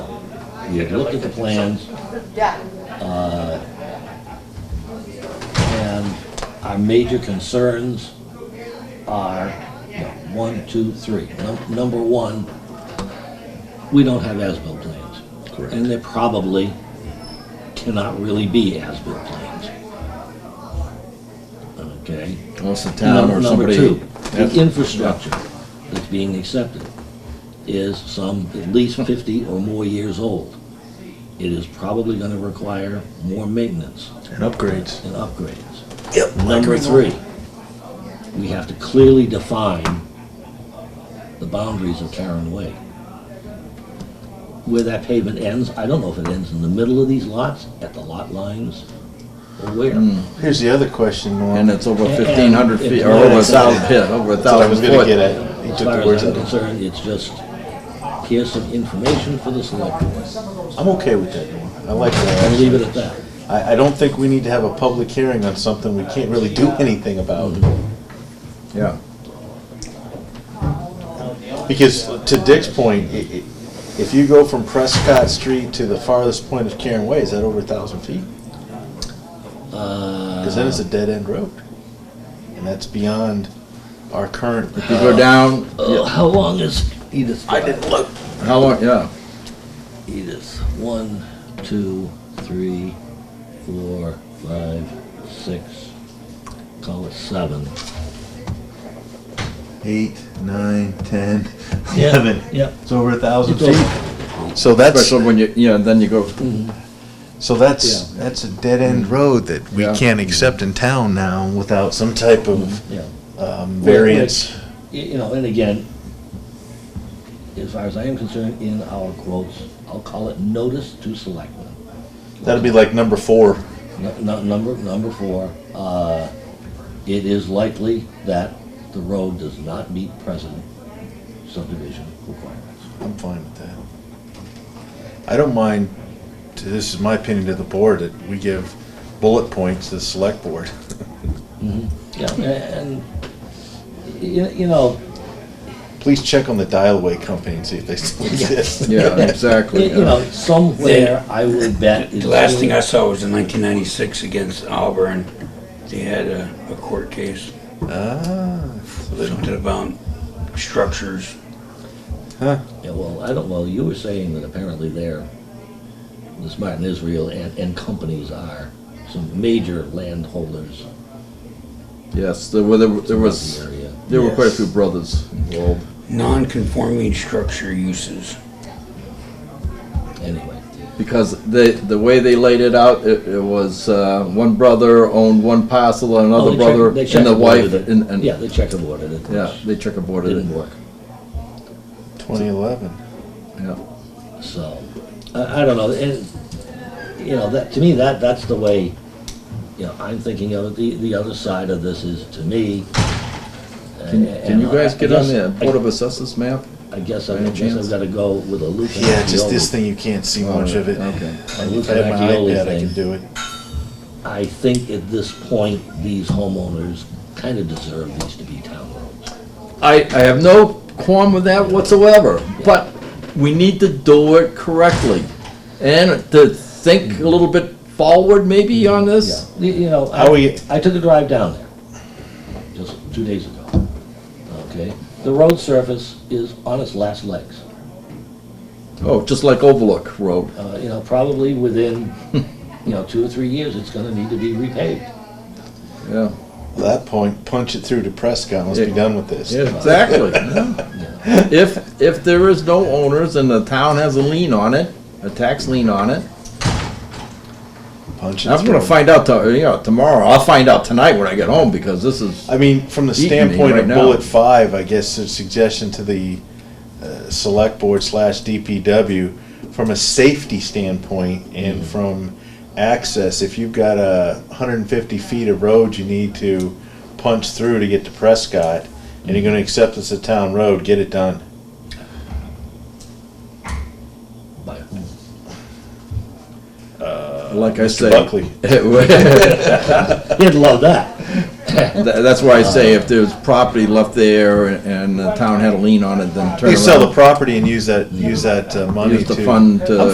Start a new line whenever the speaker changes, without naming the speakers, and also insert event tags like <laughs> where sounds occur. we had looked at the plans,
Yeah,
and our major concerns are, no, one, two, three. Num- Number one, we don't have as-built plans.
Correct.
And there probably cannot really be as-built plans. Okay?
Unless the town
Num-
or
Number
somebody.
two,
That's-
the infrastructure that's being accepted is some at least fifty or more years old. It is probably gonna require more maintenance
And upgrades.
and upgrades.
Yep.
Number three, we have to clearly define the boundaries of Karen Way. Where that pavement ends, I don't know if it ends in the middle of these lots, at the lot lines, or where.
Here's the other question,
And
Norm.
it's over
And-
fifteen hundred
and-
feet, or
and-
over a thousand, yeah, over a
That's what I
thousand
was gonna get
foot.
at. He
As
took
far
the
as
words
I'm
out. of
concerned, it's just, here's some information for the select board,
me. I'm okay with that, Norm. I like
and leave it
that.
at that.
I, I don't think we need to have a public hearing on something we can't really do anything about.
Yeah.
Because to Dick's point, i- i- if you go from Prescott Street to the farthest point of Karen Way, is that over a thousand feet? Because then it's a dead end road. And that's beyond our current.
You go down,
Uh, how long is Edith's
I
drive?
didn't look.
how long, yeah,
Edith, one, two, three, four, five, six, call it seven.
Eight, nine, ten,
Yeah,
eleven.
yeah.
It's over a thousand
It's over.
feet. So that's,
especially when you, yeah, then you go,
so that's, that's a dead end road that we
Yeah.
can't accept in town now without some type of
Mm, Yeah.
um, variance.
Y- You know, and again, as far as I am concerned, in our quotes, I'll call it notice to selectmen.
That'd be like number four.
Nu- nu- Number, number four, uh, it is likely that the road does not meet present subdivision requirements.
I'm fine with that. I don't mind, this is my opinion to the board, that we give bullet points to the select board.
Yeah, a- and, y- you know,
Please check on the dial-away company and see if they still exist.
yeah,
y- <laughs>
exactly.
you
yeah.
know, somewhere I would bet. is
The last thing I
somewhere-
saw was in 1996 against Auburn. They had a, a court case,
<laughs> Ah, so they don't-
something about structures.
Yeah, well, I don't, well, you were saying that apparently they're, this Martin Israel and, and companies are some major landholders
Yes, there were, there were- there
throughout
was,
the area.
there were quite a
Yes.
few brothers involved.
Non-conforming structure uses.
Anyway,
Because the, the way they laid it out, it, it was, uh, one brother owned one parcel and
Oh,
another
they
brother
check- they
and the wife
checkerboarded it.
and, and,
Yeah,
yeah,
they checkerboarded it. which
they checkerboarded
Didn't
it,
work,
2011.
yeah.
so, I, I don't know, and, you know, that, to me, that, that's the way, you know, I'm thinking of it, the, the other side of this is, to me.
Can,
and-
can
and
you
I-
guys
I
get on
guess-
the Board of Assessors map?
I guess, I
Any
guess I've
chance?
gotta go with a Luke and
Yeah, just this
Accioli.
thing, you can't see much of it.
Okay.
A Luke
If I had
and
my
Accioli
iPad, I
thing.
could do it.
I think at this point, these homeowners kind of deserve these to be town roads.
I, I have no qualm with that whatsoever, but we need to do it correctly. And to think a little bit forward maybe on
Yeah,
this.
you you know,
How we-
I, I took a drive down there, just two days ago, okay? The road surface is on its last legs,
Oh, just like Overlook Road.
uh, you know, probably within, <laughs> you know, two or three years, it's gonna need to be repaved.
Yeah.
At that point, punch it through to Prescott, let's be
Yeah.
done with this.
Exactly. If, if there is no owners and the town has a lien on it, a tax lien on it,
Punch it
I'm gonna
through.
find out, to- you know, tomorrow. I'll find out tonight when I get home because this is,
I mean, from the
Eating me
standpoint
right
of
now.
bullet five, I guess a suggestion to the uh, select board slash DPW, from a safety standpoint
Mm-hmm.
and from access, if you've got a hundred and fifty feet of road you need to punch through to get to Prescott, and you're gonna
Mm-hmm.
accept it's a town road, get it done.
By whom?
like I
Mr.
say.
Buckley,
<laughs> He'd love that.
Tha- That's why I say if there's property left there and the town had a lien on it, then turn around.
you sell the property and use that, use that uh, money
Use
to.
the fund to.